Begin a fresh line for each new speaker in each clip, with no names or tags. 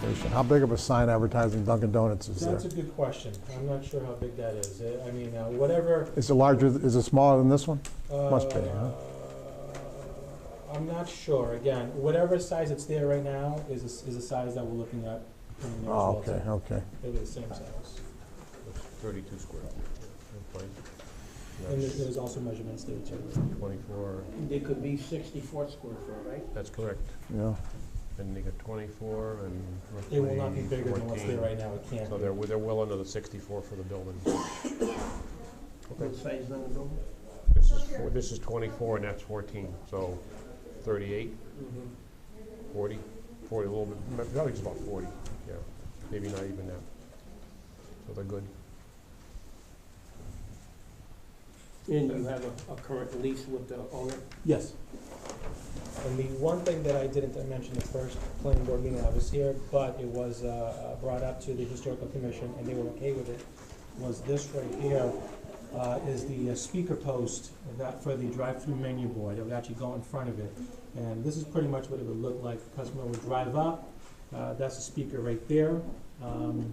situation? How big of a sign advertising Dunkin' Donuts is there?
That's a good question. I'm not sure how big that is. Uh, I mean, uh, whatever.
Is it larger, is it smaller than this one? Must be,
uh,
huh?
I'm not sure. Again, whatever size it's there right now is, a- is the size that we're looking at. in the
Oh,
next
okay,
relative.
okay.
It'll be the same size.
32 square feet.
And there's, there's also measurements there too.
24,
It could be 64 square foot, right?
that's correct.
Yeah,
And you got 24 and roughly
It will not be bigger than what's there
14.
right now. It can't
So
be.
they're, they're well under the 64 for the building.
What size number building?
This is, four- this is 24 and that's 14, so 38,
Mm-hmm.
40, 40, a little bit, probably just about 40, yeah, maybe not even that. So they're good.
And you have a, a current lease with the owner?
Yes. And the one thing that I didn't mention the first planning board meeting I was here, but it was uh, brought up to the historical commission, and they were okay with it, was this right here uh, is the uh, speaker post that for the drive-through menu board. It would actually go in front of it. And this is pretty much what it would look like. The Customer would drive up, uh, that's the speaker right there. Um,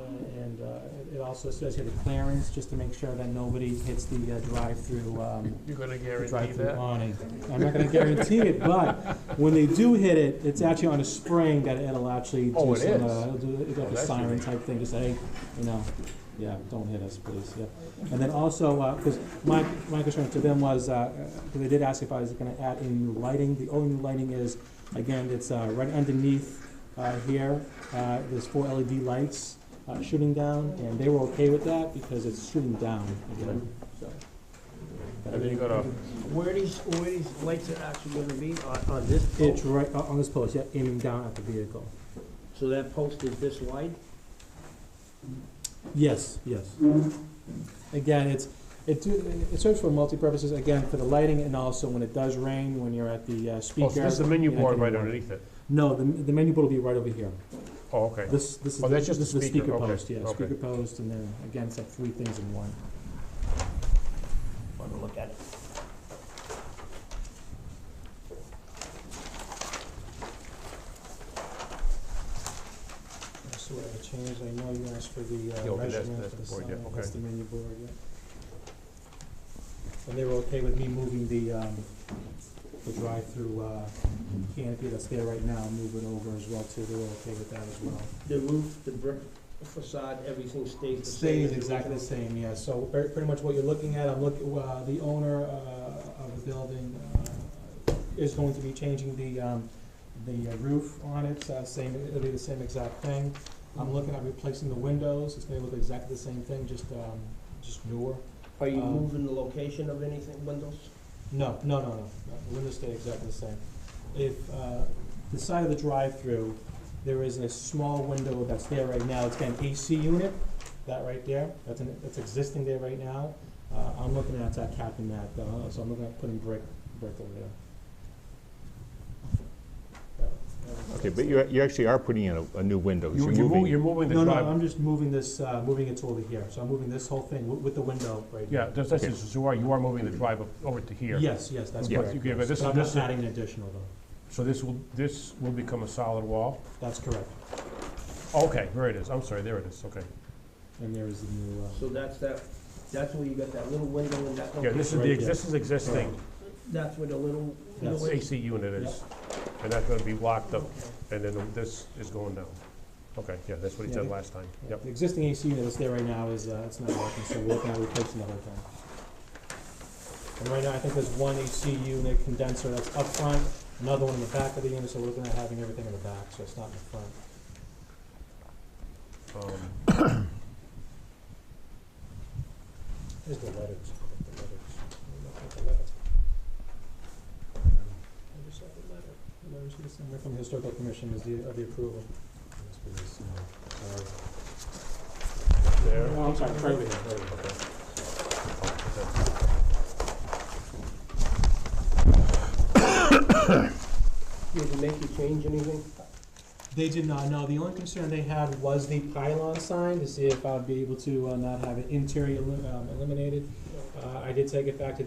uh, And uh, it- it also says here the clearance, just to make sure that nobody hits the uh, drive-through um,
You're gonna
the
guarantee
drive-through
that?
awning. I'm not gonna guarantee it, but when they do hit it, it's actually on a spring that it'll actually
Oh,
do
it
some,
is?
uh, it'll do, it's
Oh,
like a
that's
siren
unique.
type thing to say, hey, you know, yeah, don't hit us, please, yeah. And then also, uh 'cause cause my, my concern to them was, uh, uh, 'cause they did ask if I was gonna add any new lighting. The only new lighting is, again, it's, uh, right underneath, uh, here, uh, there's four LED lights, uh, shooting down, and they were okay with that because it's shooting down again, so.
And then you got a,
Mm-hmm. Where these, where these lights are actually gonna be, on, on this
It's
post?
right o- on this post, yeah, aiming down at the vehicle.
So that post is this wide?
Yes, yes. Again, it's, it, do- it serves for multi-purposes, again, for the lighting and also when it does rain, when you're at the uh, speaker.
oh, so this is the menu
you're not
board
gonna
right
want-
underneath it?
No, the, the menu board will be right over here.
Oh, okay.
This, this is.
Oh,
the-
that's just
this
the
is
speaker, okay,
post, yeah,
okay.
speaker post, and then, again, it's like three things in one.
Want to look at it?
So what I changed, I know you asked for the
Yeah,
uh,
okay, that's-
measurement
that's
for the
the
sign,
board, yeah,
that's
okay.
the menu board, yeah. And they were okay with me moving the, um, the drive-through, uh, canopy that's there right now, move it over as well too, they were okay with that as well.
The roof, the brick facade, everything stays the same?
Stays exactly the same, yeah, so very, pretty much what you're looking at, I'm looking, uh, the owner, uh, of the building, uh, is going to be changing the, um, the uh, roof on it, uh, same, it'll be the same exact thing. I'm looking at replacing the windows, it's gonna look exactly the same thing, just, um, just newer.
Are you
Um,
moving the location of anything, windows?
No, no, no, no, no, the windows stay exactly the same. If, uh, the side of the drive-through, there is a small window that's there right now, it's got an AC unit, that right there, that's an, that's existing there right now. Uh, I'm looking at that capping that, uh, so I'm looking at putting brick, brick over there. That- that was-
Okay, but you, you actually are putting in a, a new window.
You-
You're
You're moving,
moving,
you're moving the
No, no,
drive.
I'm just moving this, uh, moving it to over here, so I'm moving this whole thing with, with the window right
Yeah,
here.
that's, that's, just- you are, you are moving the drive up over to here.
Yes, yes, that's
Yeah,
correct.
okay, but this-
But I'm
this-
not adding an additional though,
So this will, this will become a solid wall?
that's correct,
Okay, there it is, I'm sorry, there it is, okay.
and there is the new, uh.
So that's that, that's where you got that little window and that
Yeah,
location?
this is
Right
the,
there.
ex- this is existing,
That's where the little,
That's-
little-
AC unit is, and that's gonna be locked up, and then this is going down. Okay, yeah, that's what he said
Yeah.
last time, yep.
The existing AC unit that's there right now is, uh, it's not working, so we're looking at replacing the whole thing. And right now, I think there's one AC unit condenser that's up front, another one in the back of the unit, so we're looking at having everything in the back, so it's not in the front.
Um,
Here's the letters, the letters. Let me look at the letter. I just saw the letter. The letters here somewhere From the historical commission is the, of the approval. Must be this, uh, sorry.
There.
Oh, I'm sorry, right over here, right over here.
did you make you change anything?
They did not, know. The only concern they had was the pylon sign, to see if I'd be able to uh, not have it interior elim- um, eliminated. Uh, I did take it back to